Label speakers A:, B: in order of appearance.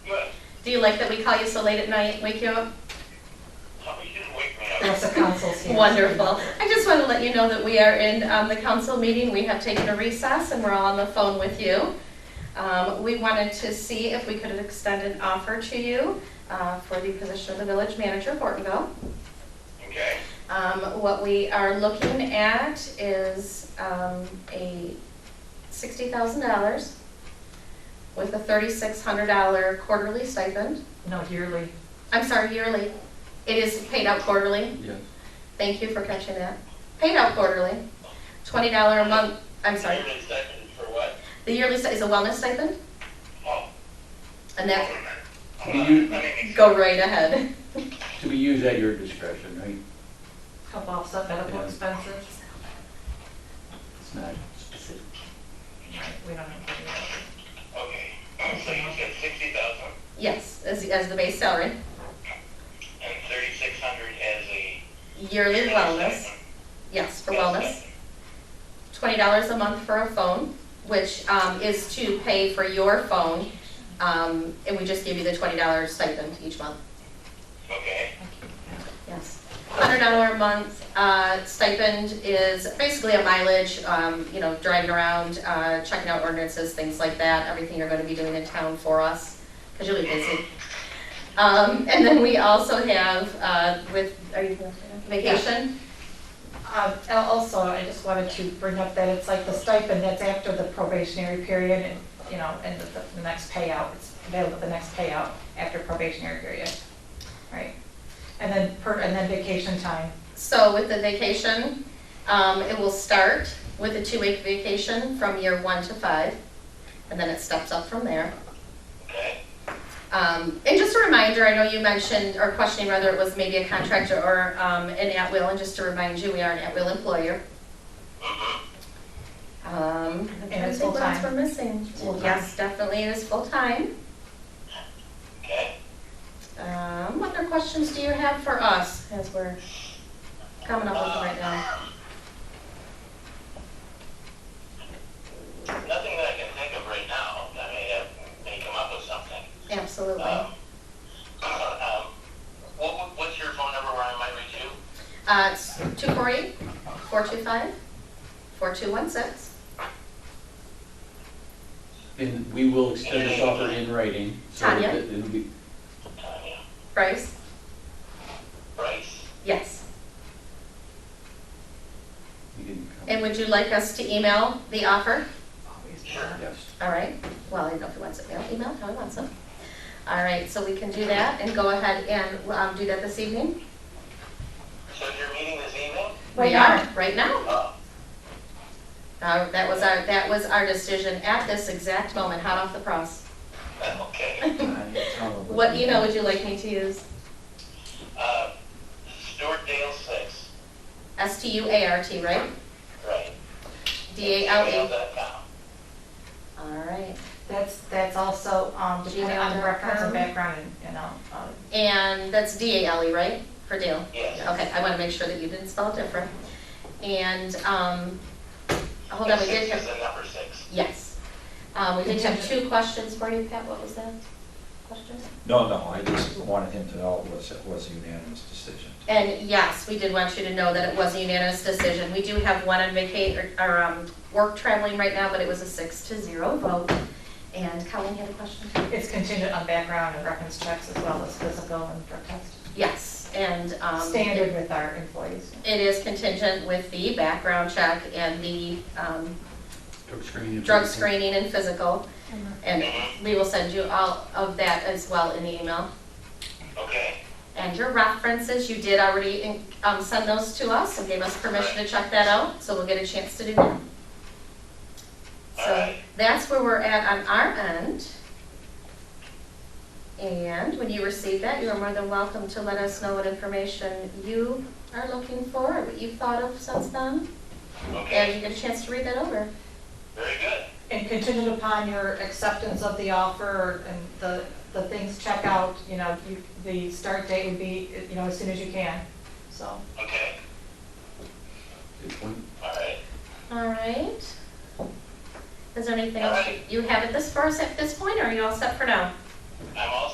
A: Do you like that we call you so late at night, wake you up?
B: Oh, you didn't wake me up.
C: Yes, the council's here.
A: Wonderful. I just want to let you know that we are in um, the council meeting. We have taken a recess and we're all on the phone with you. Um, We wanted to see if we could extend an offer to you uh, for the position of the village manager, Hortonville.
B: Okay,
A: Um, What we are looking at is um, a $60,000 with a $3,600 quarterly stipend.
C: No, yearly.
A: I'm sorry, yearly. It is paid out quarterly.
D: Yes.
A: Thank you for catching that. Paid out quarterly. $20 a month, I'm sorry.
B: Your stipend for what?
A: The yearly sti- is a wellness stipend,
B: Oh, hold
A: and
B: on
A: that,
B: a minute. Hold on,
D: You-
B: let me make
A: go right ahead.
D: To be used at your discretion, right?
C: Help offset medical
D: Yeah.
C: expenses.
D: It's not specific.
C: We don't have to do that.
B: Okay, so you said sixty thousand
A: Yes, as, as the base salary.
B: and thirty-six hundred as a.
A: Yearly wellness,
B: stipend.
A: yes, for wellness. Twenty dollars a month for a phone, which, um, is to pay for your phone. Um, and we just give you the twenty dollar stipend each month,
B: Okay,
A: yes. Hundred dollar a month, uh, stipend is basically a mileage, um, you know, driving around, uh, checking out ordinances, things like that. Everything you're gonna be doing in town for us, cause you'll be busy. Um, and then we also have, uh, with, are you, vacation?
C: Um, and Also, I just wanted to bring up that it's like the stipend that's after the probationary period and, you know, and the the next payout, it's available the next payout after probationary period. Right? And then per, and then vacation time.
A: So with the vacation, um, it will start with a two-week vacation from year one to five, and then it steps up from there.
B: okay,
A: Um, and just a reminder, I know you mentioned or questioning whether it was maybe a contractor or, um, an at-will, and just to remind you, we are an at-will employer. Um, I'm trying to
C: And it's
A: think what else
C: full-time.
A: We're missing.
C: full-time.
A: Yes, definitely, it is full-time.
B: okay.
A: Um, what other questions do you have for us as we're coming up with them right now?
B: Nothing that I can think of right now. I may have, may come up with something.
A: Absolutely.
B: Um, um, What, what- what's your phone number where I might reach you?
A: Uh, it's 248, 425, 4216.
D: And we will extend this offer in writing. so
A: Tanya?
D: that It'll be,
B: Tanya,
A: Bryce?
B: Bryce?
A: Yes.
D: you didn't
A: And
D: come.
A: would you like us to email the offer?
D: Yes.
A: All right. Well, I don't know if he wants it mail, email, how he wants it. All right, so we can do that and go ahead and um, do that this evening?
B: So you're meeting this evening?
C: Right
A: We
C: now.
A: are, right now.
B: Oh,
A: Uh, That was our, that was our decision at this exact moment, hot off the press.
B: okay.
D: I tell them
A: What email would you like me to use?
B: Uh, Stuart Dale six,
A: S-T-U-A-R-T, right?
B: right?
A: D-A-L-E.
B: gmail.com.
A: E. All right.
C: That's, that's also, um, depending on the reference and background and, you know, um,
A: And that's D-A-L-E, E, right? For Dale?
B: Yes.
A: Okay, I want to make sure that you didn't spell it different. And, um, hold on, we did
B: Six is
A: have,
B: the number six.
A: yes. Um, we did have two questions for you, Pat, what was that question?
E: No, no, I just wanted him to know it was, it was a unanimous decision.
A: And yes, we did want you to know that it was a unanimous decision. We do have one on vacation, or, um, work traveling right now, but it was a six to zero vote. And Colleen had a question?
C: it's contingent on background and reference checks as well as physical and drug test.
A: Yes, and, um.
C: Standard with our employees.
A: It is contingent with the background check and the, um,
D: Drug screening.
A: drug screening and physical. And we will send you all of that as well in the email.
B: Okay,
A: And your references, you did already um, send those to us and gave us permission to check that out, so we'll get a chance to do that. So
B: Alright.
A: that's where we're at on our end. And when you receive that, you are more than welcome to let us know what information you are looking for, or what you've thought of since then. And
B: okay,
A: you get a chance to read that over.
B: very good.
C: And contingent upon your acceptance of the offer and the, the things check out, you know, you- the start date would be, you know, as soon as you can, so.
B: Okay,
D: Good point.
B: all right.
A: All right. Is there anything else
B: Alright.
A: you you have at this, for us at this point, or are you all set for now?
B: I'm all